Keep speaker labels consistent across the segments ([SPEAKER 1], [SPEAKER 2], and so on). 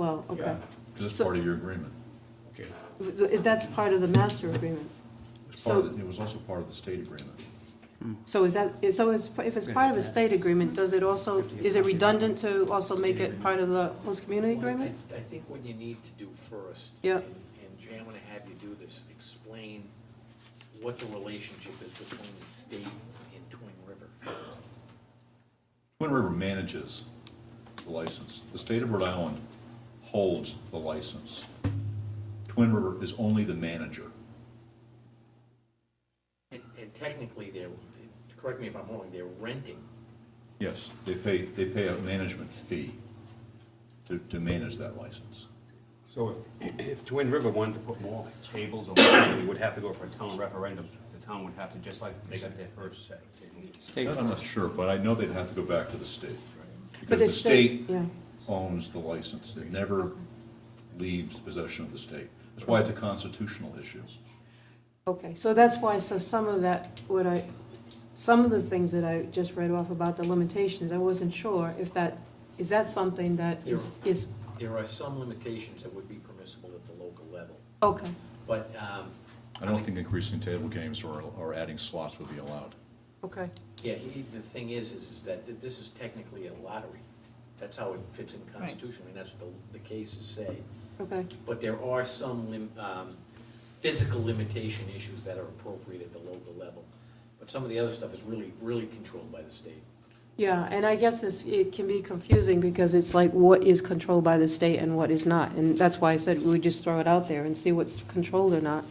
[SPEAKER 1] Oh, okay.
[SPEAKER 2] Because it's
[SPEAKER 1] So-
[SPEAKER 2] part of your agreement.
[SPEAKER 3] Okay.
[SPEAKER 1] That's part of the master agreement.
[SPEAKER 2] It's part
[SPEAKER 1] So-
[SPEAKER 2] of, the- it was also part of the state agreement.
[SPEAKER 1] So is that, so is, if it's part of a state agreement, does it also, is it redundant to also make it part of the host community agreement?
[SPEAKER 4] I I think what you need to do first.
[SPEAKER 1] Yep.
[SPEAKER 4] and- And Jay, I'm gonna have you do this, explain what the relationship is between the state and Twin River.
[SPEAKER 2] Twin River manages the license. The state of Rhode Island holds the license. Twin River is only the manager.
[SPEAKER 4] And, and technically, they're, correct me if I'm wrong, they're renting.
[SPEAKER 2] Yes, they pay, they pay a management fee to, to manage that license.
[SPEAKER 3] So if, if Twin River wanted to put more tables or whatever, they would have to go for a town referendum. The town would have to, just like they got their first say.
[SPEAKER 2] That I'm not sure, but I know they'd have to go back to the state.
[SPEAKER 1] But
[SPEAKER 2] Because the state
[SPEAKER 1] Yeah,
[SPEAKER 2] owns the license. It never leaves possession of the state. That's why it's a constitutional issue.
[SPEAKER 1] okay, so that's why, so some of that, what I, some of the things that I just read off about the limitations, I wasn't sure if that, is that something that is, is,
[SPEAKER 4] There are some limitations that would be permissible at the local level,
[SPEAKER 1] okay,
[SPEAKER 4] but, um,
[SPEAKER 2] I don't think increasing table games or, or adding slots would be allowed.
[SPEAKER 1] okay.
[SPEAKER 4] yeah, he, the thing is, is is that th- this is technically a lottery. That's how it fits in the Constitution, and that's what the, the cases say.
[SPEAKER 1] Okay,
[SPEAKER 4] But there are some lim- um, physical limitation issues that are appropriate at the local level. But some of the other stuff is really, really controlled by the state.
[SPEAKER 1] yeah, and I guess this, it can be confusing because it's like what is controlled by the state and what is not. And that's why I said we would just throw it out there and see what's controlled or not.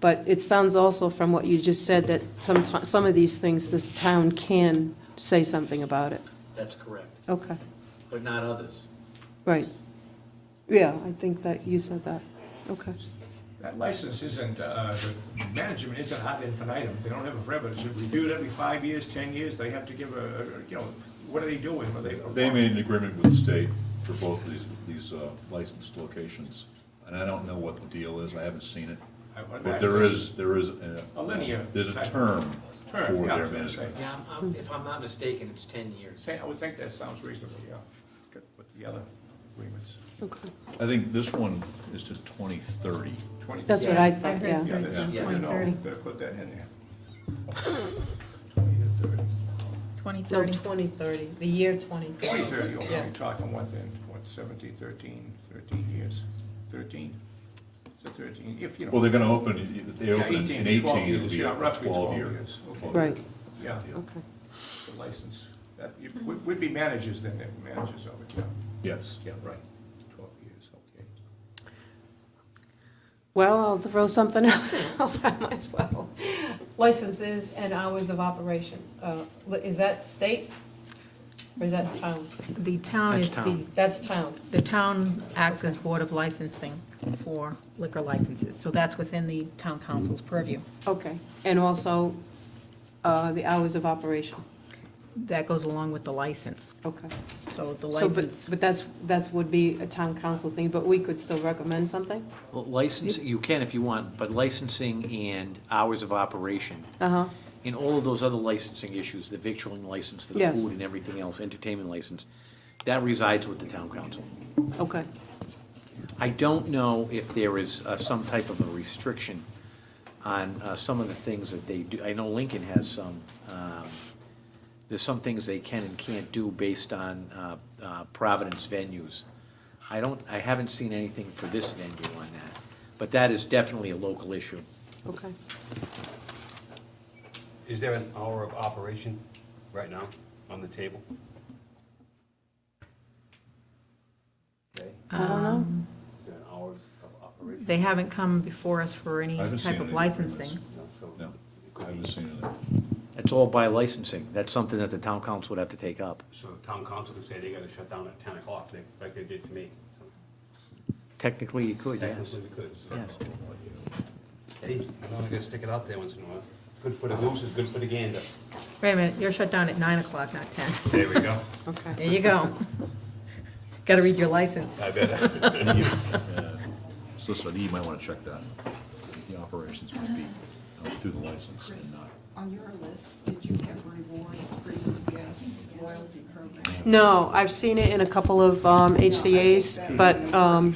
[SPEAKER 1] But it sounds also from what you just said that some, some of these things, the town can say something about it.
[SPEAKER 4] That's correct,
[SPEAKER 1] Okay,
[SPEAKER 4] but not others.
[SPEAKER 1] right. Yeah, I think that you said that. Okay,
[SPEAKER 5] That license isn't, uh, the management isn't hot infinitum, they don't have it forever, it's reviewed every five years, ten years, they have to give a, a- you know, what are they doing? Are they?
[SPEAKER 2] They made an agreement with the state for both of these, these uh, licensed locations, and I don't know what the deal is, I haven't seen it.
[SPEAKER 5] I would
[SPEAKER 2] But there
[SPEAKER 5] imagine
[SPEAKER 2] is, there is, a-
[SPEAKER 5] A linear.
[SPEAKER 2] there's a
[SPEAKER 5] type of-
[SPEAKER 2] term for
[SPEAKER 5] Term, yeah, I
[SPEAKER 2] their
[SPEAKER 5] was gonna say.
[SPEAKER 2] management.
[SPEAKER 4] Yeah, I'm- I'm- if I'm not mistaken, it's 10 years.
[SPEAKER 5] Say, I would think that sounds reasonable, yeah, Good with the other agreements,
[SPEAKER 1] okay.
[SPEAKER 2] I think this one is to 2030.
[SPEAKER 5] twenty.
[SPEAKER 1] That's what I thought,
[SPEAKER 5] Yeah,
[SPEAKER 1] yeah.
[SPEAKER 5] that's,
[SPEAKER 4] Yeah.
[SPEAKER 5] you know,
[SPEAKER 6] 2030.
[SPEAKER 5] better put that in there. Twenty to thirty.
[SPEAKER 1] So
[SPEAKER 6] 2030.
[SPEAKER 1] 2030.
[SPEAKER 6] The year 2030.
[SPEAKER 5] Twenty thirty, okay,
[SPEAKER 6] Yeah.
[SPEAKER 5] we're talking what then, what, seventeen, thirteen, thirteen years, thirteen? It's a thirteen, if, you know.
[SPEAKER 2] Well, they're gonna open, if they
[SPEAKER 5] Yeah,
[SPEAKER 2] open in
[SPEAKER 5] 18 to 12
[SPEAKER 2] 18, it'll
[SPEAKER 5] years,
[SPEAKER 2] be
[SPEAKER 5] yeah,
[SPEAKER 2] a
[SPEAKER 5] roughly 12
[SPEAKER 2] 12 year.
[SPEAKER 5] years,
[SPEAKER 2] 12
[SPEAKER 5] okay.
[SPEAKER 2] year
[SPEAKER 1] Right,
[SPEAKER 5] Yeah,
[SPEAKER 2] deal.
[SPEAKER 1] okay.
[SPEAKER 5] the license, that, you- would, would be managers then, they're managers of it, yeah.
[SPEAKER 2] Yes.
[SPEAKER 5] Yeah, right, twelve years, okay.
[SPEAKER 1] Well, I'll throw something else, else I might as well. Licenses and hours of operation, uh, li- is that state or is that town?
[SPEAKER 6] The town is
[SPEAKER 7] That's
[SPEAKER 6] the,
[SPEAKER 7] town.
[SPEAKER 1] That's town,
[SPEAKER 6] the town acts as board of licensing for liquor licenses. So that's within the town council's purview.
[SPEAKER 1] okay. And also, uh, the hours of operation,
[SPEAKER 6] That goes along with the license.
[SPEAKER 1] okay.
[SPEAKER 6] So the
[SPEAKER 1] So, but,
[SPEAKER 6] license,
[SPEAKER 1] but that's, that's would be a town council thing, but we could still recommend something?
[SPEAKER 4] Well, licensing, you can if you want, but licensing and hours of operation,
[SPEAKER 1] Uh-huh,
[SPEAKER 4] and all of those other licensing issues, the victualling license, the
[SPEAKER 1] Yes.
[SPEAKER 4] food and everything else, entertainment license, that resides with the town council.
[SPEAKER 1] okay,
[SPEAKER 4] I don't know if there is uh, some type of a restriction on uh, some of the things that they do. I know Lincoln has some, um, there's some things they can and can't do based on uh, uh, Providence venues. I don't, I haven't seen anything for this venue on that, but that is definitely a local issue.
[SPEAKER 1] okay.
[SPEAKER 3] Is there an hour of operation right now on the table? Okay, Um,
[SPEAKER 1] I don't know,
[SPEAKER 3] is there an hour of operation?
[SPEAKER 6] they haven't come before us for any
[SPEAKER 2] I haven't seen
[SPEAKER 6] type
[SPEAKER 2] any
[SPEAKER 6] of
[SPEAKER 2] agreements.
[SPEAKER 6] licensing.
[SPEAKER 3] No, so-
[SPEAKER 2] No, I haven't seen it.
[SPEAKER 4] That's all by licensing. That's something that the town council would have to take up.
[SPEAKER 3] So the town council could say they gotta shut down at ten o'clock, like- like they did to me. So
[SPEAKER 4] Technically, you could, yes.
[SPEAKER 3] Technically, we could.
[SPEAKER 4] Yes.
[SPEAKER 3] Hey, you know, I gotta stick it out there once in a while. Good for the goose is good for the gander.
[SPEAKER 6] Wait a minute, you're shut down at 9 o'clock, not 10.
[SPEAKER 3] There we go.
[SPEAKER 1] okay.
[SPEAKER 6] There you go. Got to read your license.
[SPEAKER 3] I better.
[SPEAKER 2] Solicitor, you might wanna check that. The operations might be uh, through the license and
[SPEAKER 8] Chris,
[SPEAKER 2] not.
[SPEAKER 8] on your list, did you have rewards for your guests loyalty program?
[SPEAKER 1] No, I've seen it in a couple of um, HCAs, but um,